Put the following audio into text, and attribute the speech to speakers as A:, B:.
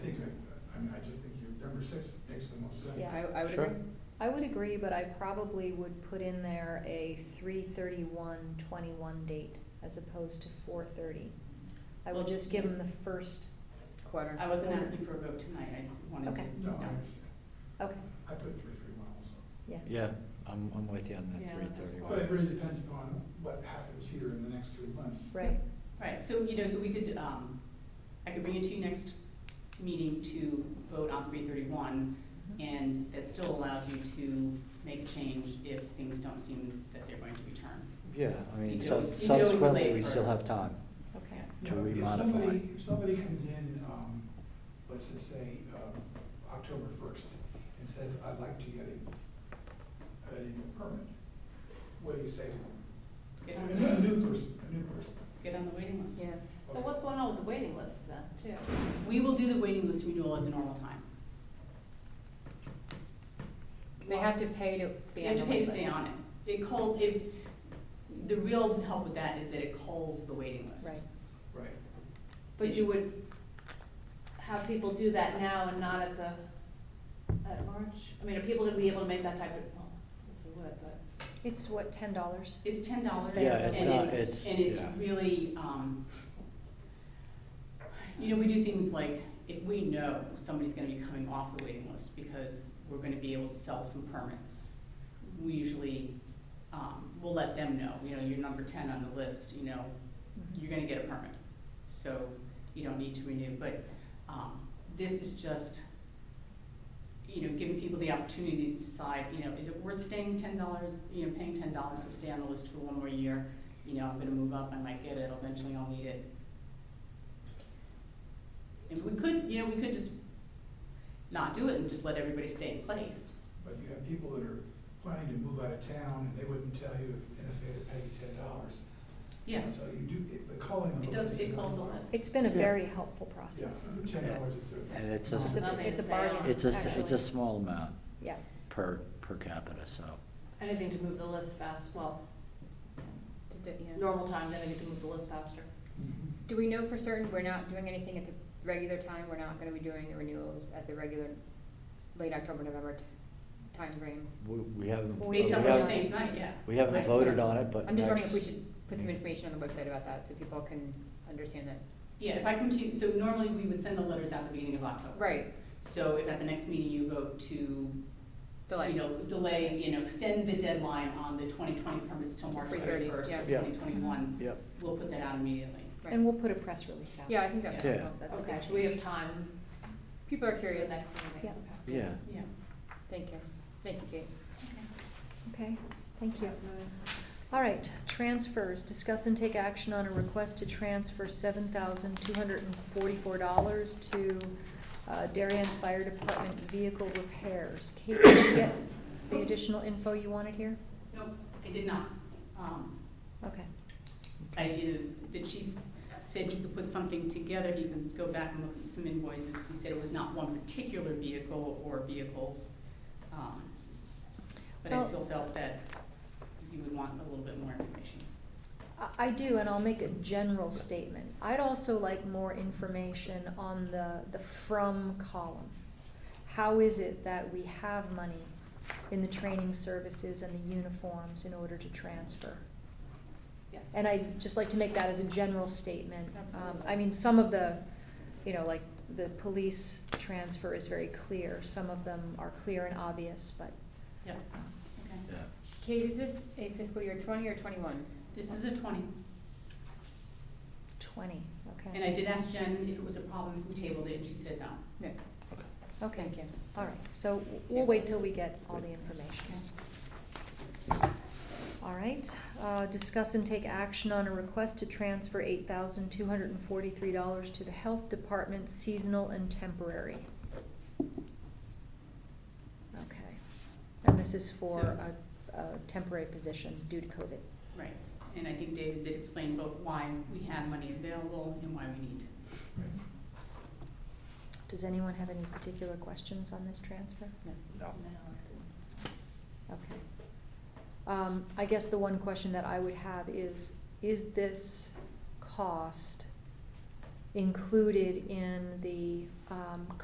A: six makes the most sense.
B: Yeah, I, I would
C: Sure.
B: agree. I would agree, but I probably would put in there a three thirty-one twenty-one date as opposed to four thirty. I will
D: Well,
B: just give them the first quarter.
D: I wasn't asking for a vote tonight, I wanted to.
B: Okay.
A: No, I
D: know.
A: understand.
B: Okay,
A: I put three, three, one also.
C: Yeah, I'm, I'm with you on
D: Yeah,
C: that three
D: that's
C: thirty
A: But it
C: one.
A: really depends upon what happens here in the next three months.
B: right,
D: Right, so, you know, so we could, um, I could bring it to you next meeting to vote on three thirty-one,
E: Mm-hmm.
D: and that still allows you to make a change if things don't seem that they're going to return.
C: Yeah, I
D: You
C: mean,
D: could
C: sub-
D: always- you could always
C: subsequently,
D: delay
C: we
D: for-
C: still have time.
B: okay.
C: To
A: You know, if
C: remodify.
A: somebody- If somebody comes in, um, let's just say, um, October first, and says, I'd like to get a, a permit, what do you say to them?
D: Get
A: A
D: on
A: new
D: the
A: a
D: waiting
A: new
D: list.
A: person, a new person.
D: Get on the waiting list.
E: So what's going on with the waiting lists then, too?
D: We will do the waiting list renewal at the normal time.
E: They have to pay to be
D: You
E: on
D: have
E: the
D: to pay to
E: wait
D: stay
E: list.
D: on it. It calls, it, the real help with that is that it calls the waiting list.
B: Right.
A: Right.
E: But you would have people do that now and not at the, at March? I mean, are people gonna be able to make that type of, well, if they would, but.
B: It's what, ten dollars?
D: It's ten dollars,
B: Yeah,
D: and
B: it's not-
D: it's,
C: it's-
D: and it's
C: yeah.
D: really, um, you know, we do things like, if we know somebody's gonna be coming off the waiting list because we're gonna be able to sell some permits, we usually, um, we'll let them know, you know, you're number ten on the list, you know,
B: Mm-hmm.
D: you're gonna get a permit. So you don't need to renew, but, um, this is just, you know, giving people the opportunity to decide, you know, is it worth staying ten dollars, you know, paying ten dollars to stay on the list for one more year? You know, I'm gonna move up, I might get it, eventually I'll need it. And we could, you know, we could just not do it and just let everybody stay in place.
A: But you have people that are planning to move out of town, and they wouldn't tell you if, unless they had to pay you ten dollars.
D: Yeah,
A: So you do, it- the calling of.
D: it
A: a
D: does,
A: list
D: it
A: is
D: calls a
A: one.
D: list.
B: It's been a
C: Yeah.
B: very helpful
A: Yeah,
B: process.
A: ten dollars is there.
C: And it's a,
B: It's
C: s-
B: a,
E: Nothing
B: it's a
E: to stay on.
B: bargain,
C: it's a, s- it's a
B: actually.
C: small amount
B: Yeah,
C: per, per capita, so.
E: Anything to move the list fast, well, normal times, anything to move the list faster.
A: Mhm.
F: Do we know for certain we're not doing anything at the regular time? We're not gonna be doing the renewals at the regular late October, November t- timeframe?
C: We, we haven't.
B: Well,
D: Based on
C: we
D: what you're
C: haven't-
D: saying tonight, yeah.
C: We haven't
F: I-
C: voted on it, but.
F: I'm just wondering if
C: next-
F: we should put some information on the website about that, so people can understand that.
D: Yeah, if I come to you, so normally we would send the letters out the beginning of October.
F: Right,
D: So if at the next meeting you vote to you
F: delay.
D: know, delay, you know, extend the deadline on the twenty twenty permits till March
F: 3:30,
D: thirty first of
C: yeah.
D: twenty twenty one.
C: Yep,
D: We'll put that out immediately.
F: Right.
B: and we'll put a press release out.
F: Yeah, I think that
C: Yeah.
F: helps, that's a
E: Okay,
F: good
E: so we have time
F: People are
E: for the
F: curious.
E: next meeting. Okay.
C: yeah.
D: Yeah.
F: Thank you. Thank you, Kate.
B: Okay, thank you. All right, transfers, discuss and take action on a request to transfer seven thousand two hundred and forty-four dollars to uh, Darien Fire Department vehicle repairs. Kate, did you get the additional info you wanted here?
D: Nope, I did not. Um,
B: Okay,
D: I, uh, the chief said he could put something together, he can go back and look at some invoices. He said it was not one particular vehicle or vehicles. Um, But I
B: Well-
D: still felt that you would want a little bit more information.
B: I, I do, and I'll make a general statement. I'd also like more information on the, the from column. How is it that we have money in the training services and the uniforms in order to transfer?
E: Yeah.
B: And I'd just like to make that as a general statement. Um,
E: Absolutely.
B: I mean, some of the, you know, like, the police transfer is very clear. Some of them are clear and obvious, but.
D: Yep.
B: um,
D: Okay.
C: Yeah.
F: Kate, is this a fiscal year twenty or twenty-one?
D: This is a twenty.
B: Twenty, okay.
D: And I did ask Jen if it was a problem if we tabled it, and she said no.
F: No,
B: Okay,
F: thank you.
B: all right, so we'll wait till we get all the information. All right, uh, discuss and take action on a request to transfer eight thousand two hundred and forty-three dollars to the Health Department seasonal and temporary. Okay, and this is for
D: So-
B: a, a temporary position due to COVID.
D: Right, and I think David did explain both why we had money available and why we need.
B: Does anyone have any particular questions on this transfer?
C: No.
B: Okay. Um, I guess the one question that I would have is, is this cost included in the, um,